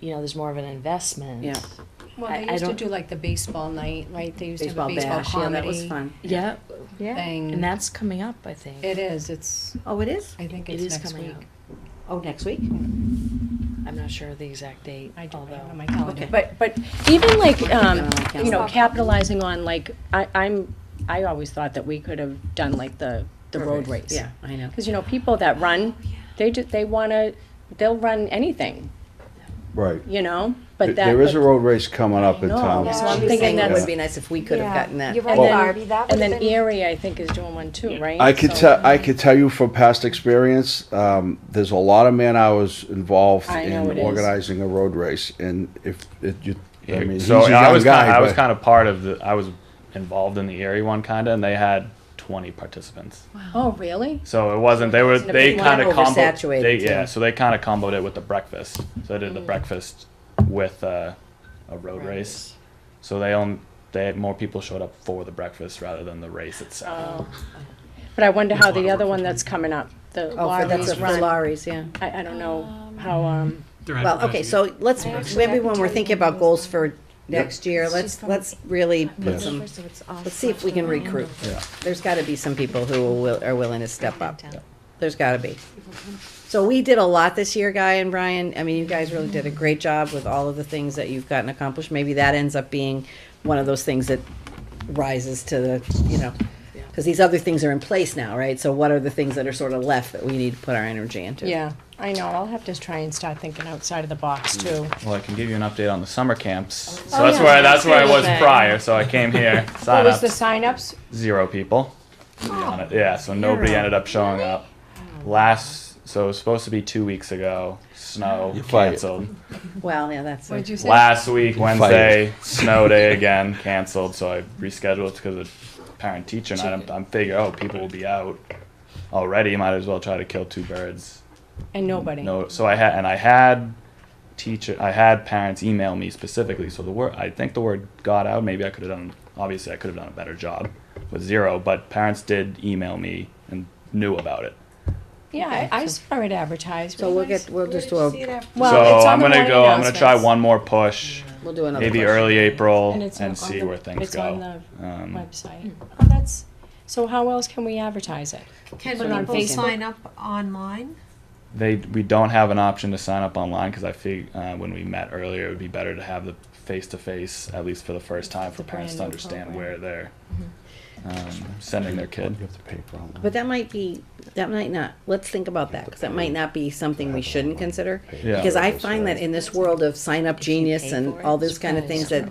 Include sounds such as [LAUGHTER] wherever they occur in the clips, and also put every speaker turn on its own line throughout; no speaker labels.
you know, there's more of an investment.
Yeah.
Well,
I-
they
I
used to
don't-
do like the baseball night, right? They used to have a
Baseball
baseball
bash, yeah, that was
comedy
fun.
Yeah, yeah. And
thing.
that's coming up, I think.
It is, it's,
Oh, it is?
I think
It
it's
is
next
coming
week.
up.
Oh, next week?
I'm not sure of the exact date,
I don't
although.
have it on my calendar.
Okay.
But, but even like, um,
Yeah.
you know, capitalizing on like, I, I'm, I always thought that we could have done like the, the road race.
Yeah, I know.
Cause you know, people that run, they ju, they wanna, they'll run anything,
Right.
you know,
There-
but that.
There is a road race coming up in
I know,
town.
that's
So
what
I'm
I'm thinking
thinking that
that's-
would be nice if we could have gotten that.
You're
And
right,
then-
Barbie, that
And
would
then
have been,
Erie, I think, is doing one too, right?
I could
So-
tell, I could tell you from past experience, um, there's a lot of man hours involved
I know it
in
is.
organizing a road race, and if, it, you, I mean, he's a
so I
young
was kind of, I
guy,
was
but.
kind of part of the I was involved in the Erie one kinda and they had 20 participants.
Oh, really?
So it wasn't they were
It's a
they
big
kind of
one.
combo
Oversaturated,
they
too.
yeah so they kind of comboed it with the breakfast. So they did the breakfast with uh, a road race. So they own they had more people showed up for the breakfast rather than the race itself.
Oh.
But I wonder how
That's why
the
I
other
work
one
for
that's coming up, the
Oh, for- that's
Laurie's
a- for
Run,
lorries, yeah.
I, I don't know how, um,
Well, okay, so let's, maybe when we're thinking about goals for next year, let's, let's really put
Yes.
some, let's see if we can recruit.
Yeah.
There's gotta be some people who will, are willing to step up. There's gotta be. So we did a lot this year, Guy and Brian. I mean, you guys really did a great job with all of the things that you've gotten accomplished. Maybe that ends up being one of those things that rises to the, you know, because these other things are in place now, right? So what are the things that are sort of left that we need to put our energy into?
Yeah, I know, I'll have to try and start thinking outside of the box
Mm.
too.
Well, I can give you an update on the summer camps. So
Oh,
that's
yeah.
where that's where I was
Okay.
prior. So I came here
What
sign
was
up
the sign-ups?
zero people. to be honest. Yeah, so nobody ended up showing up. Last so it was supposed to be two weeks ago. Snow
fired.
canceled.
Well, yeah, that's.
What'd you say?
Last week, Wednesday, snow day again, canceled. So I rescheduled because of parent teacher night. I'm, I'm figuring, oh, people will be out already. Might as well try to kill two birds.
And nobody.
No, so I had and I had teacher, I had parents email me specifically. So the word, I think the word got out. Maybe I could have done. Obviously, I could have done a better job with zero. But parents did email me and knew about it.
Yeah, I, I saw it advertised.
So we'll get, we'll just do a,
Well, it's on
so I'm
the
gonna
morning
go. I'm gonna try
announcements.
one more push,
we'll do another.
maybe
push.
early April,
And
and,
it's on-
see
on the-
where things
it's
go.
on the
um,
Website. Oh, that's, so how else can we advertise it?
Can
Put it on
people
Facebook.
sign up online?
They we don't have an option to sign up online because I think uh, when we met earlier, it would be better to have the face to face at least for the first time for
The
parents to
brand new
understand
program.
where they're
Mm-hmm.
um, sending their kid.
You have to pay for all that.
But that might be, that might not, let's think about that, because that might not be something we shouldn't consider.
Yeah.
Because I find that in this world of sign up genius and all those kind of things that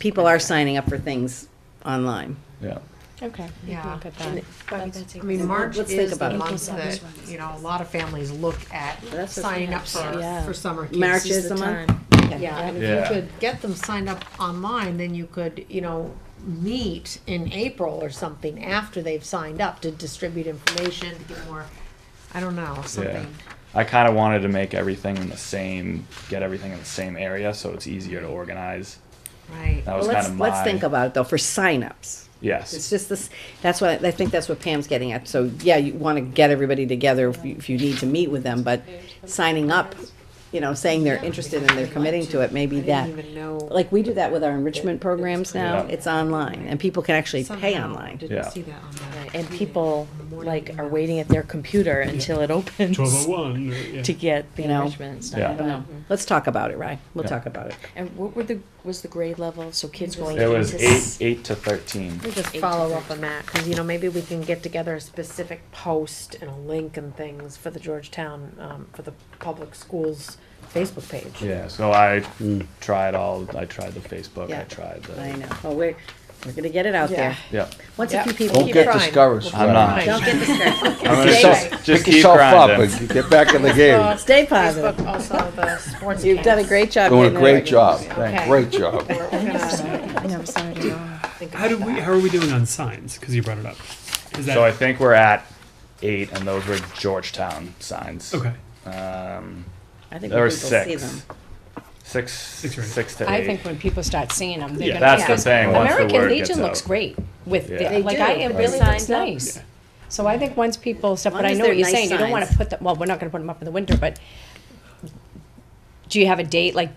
people are signing up for things online.
Yeah.
Okay. we can
Yeah.
Look at that.
I mean, March
Let's think
is the
about it.
month that, you know, a lot of families look at
That's what-
signing up for,
Yeah.
for summer camps.
March is the month.
Yeah, and
Yeah.
if you could get them signed up online, then you could, you know, meet in April or something after they've signed up to distribute information, to get more, I don't know,
Yeah.
something.
I kind of wanted to make everything in the same, get everything in the same area, so it's easier to organize.
Right.
That
Well,
was
let's,
kind of my.
let's think about it though, for signups. It's
Yes.
just this, that's what, I think that's what Pam's getting at. So, yeah, you want to get everybody together if you, if you need to meet with them, but signing up, you know, saying they're interested and they're committing to it, maybe
I
that.
didn't even know.
Like we do that with our enrichment programs now,
Yeah.
it's online and people can actually pay
somehow
online.
Yeah.
Didn't see that on that.
Right, And people like are waiting at their computer until it opens
Twelve oh one, yeah.
to get the
You know?
enrichment stuff.
Yeah.
But-
Let's talk about it, Ryan. We'll
Yeah.
talk about it.
And what were the, was the grade level, so kids going
It
into.
was eight,
s-
eight to thirteen.
Mm.
We just
Eight
follow
to
up on that, cause you know, maybe we can get together a specific post and a link and things for the Georgetown, um, for the public schools Facebook page.
Yeah. So I tried all. I tried the Facebook.
Yeah.
I tried the.
I know. Well, we're, we're gonna get it out there.
Yeah.
Once a few people,
Don't
Keep
get
trying.
discouraged.
I'm
Fred.
not.
don't get discouraged.
I'm gonna
Stay-
just, just
Pick
keep
yourself up
grinding.
and get back in the
[LAUGHS]
game.
Stay
Facebook
positive.
also the sports.
You've done a great job.
Doing a
getting it
great
organized.
job,
Thank
Okay.
great job.
How do we, how are we doing on signs? Because you brought it up. Is that
So I think we're at eight, and those were Georgetown signs.
okay?
Um,
I think
there were
people see them.
six. Six,
Six or eight.
six to eight.
I think when people start seeing them, they're
Yeah.
gonna.
That's the
because
thing. Once the
American
word gets
Legion looks
out.
great with,
Yeah.
the-
They
like,
do.
I, it
They
really
sign
looks
up.
nice. So I think once people step,
Long
but I
as
know
they're
what you're
nice
saying, you don't wanna
signs.
put them, well, we're not gonna put them up in the winter, but do you have a date, like,